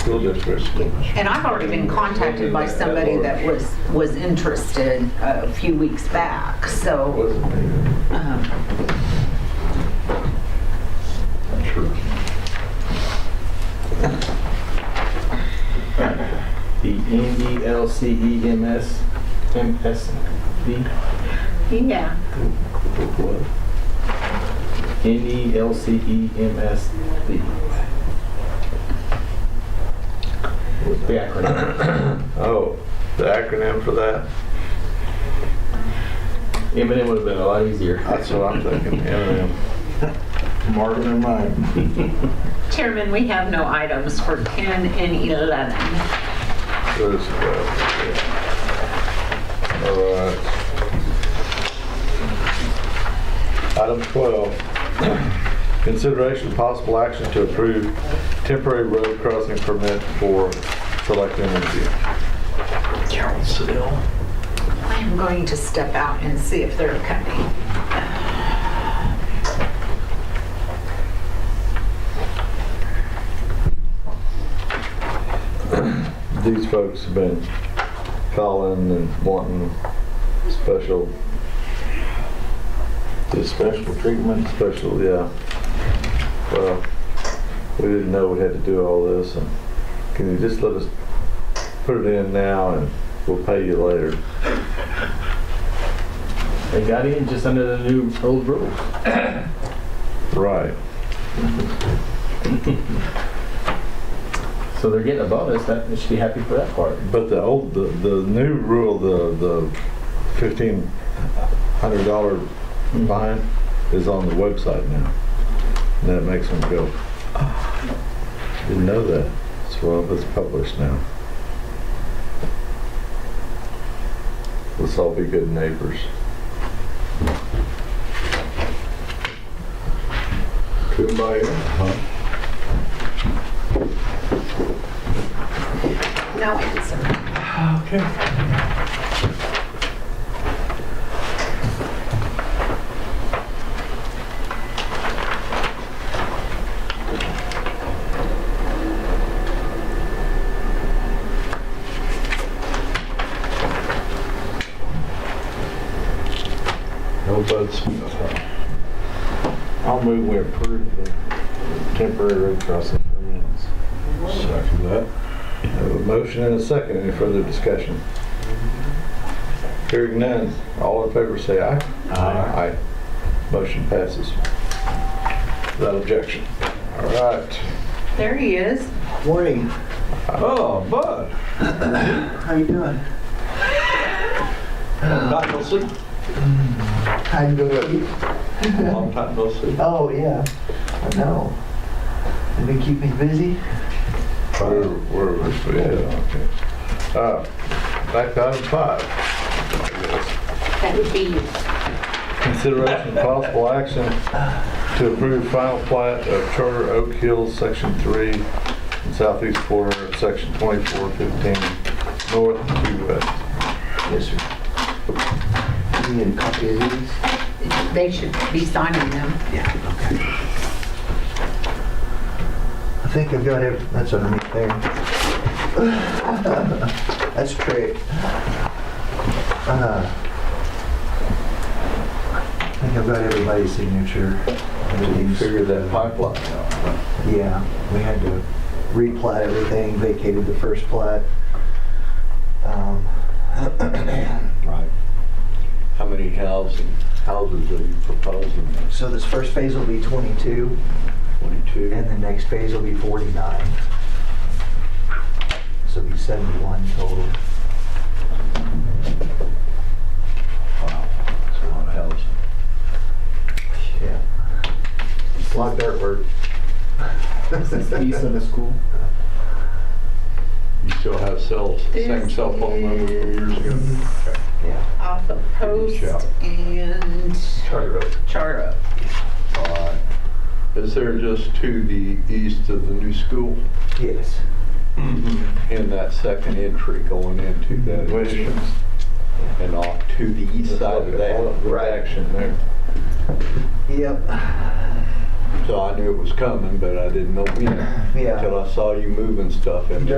school district. And I've already been contacted by somebody that was, was interested a few weeks back, so. Wasn't there? um, The E NDLCEMS, MSB, Yeah. What? E NDLCEMSB. The acronym, Oh, the acronym for that? Eminem would have been a lot easier. That's what I'm thinking, M&M. Mark in mind. Chairman, we have no items for 10 and 11. All right. Item 12, consideration of possible action to approve temporary road crossing permit for select energy. Carol Siddell. I am going to step out and see if they're coming. These folks have been calling and wanting special. special treatment? Special, yeah. Well, we didn't know we had to do all this and can you just let us put it in now and we'll pay you later? They got in just under the new old rules. Right. So they're getting a bonus, that, they should be happy for that part. But the old, the, the new rule, the, the fifteen hundred dollar fine is on the website now. And that makes them go, ah, didn't know that. So well, it's published now. Let's all be good neighbors. Kumbaya. No answer. No buds. I'll move we approve the temporary road crossing permits. Second that. Have a motion and a second. Any further discussion? Hearing none. All in favor say aye. Aye. Motion passes. Without objection. All right. There he is. Morning, Oh, Bud. how you doing? Not no sleep. How you doing? Long time no sleep. Oh, yeah, I know. They've been keeping me busy. Where, where was we at? Okay. Uh, Back to item five. I guess. That would be you. Consideration of possible action to approve final plat of Charter Oak Hills, Section 3, and southeast corner of Section 2415, north to west. Yes, sir. You need a copy of these? They should be signing them. Yeah, okay. I think I've got every, that's underneath there. That's great. Uh, I think I've got everybody's signature. Everything's- that pipeline out. Yeah, we had to replat everything, vacated the first plat. Um, Right. How many housing, houses are you proposing? So this first phase will be 22, 22? and the next phase will be 49. So it'll be 71 total. Wow, that's a lot of houses. Yeah. A lot of dirt work. This is east of the school. You still have cells, This is Yeah. Off of Post Good job. and Charter Oak. Charter Oak. Alright. Is there just to the east of the new school? Yes. in that second entry going into that addition and off to the east side of that. Right action there. Yep. So I knew it was coming, but I didn't know when Yeah. until I saw you moving stuff in there.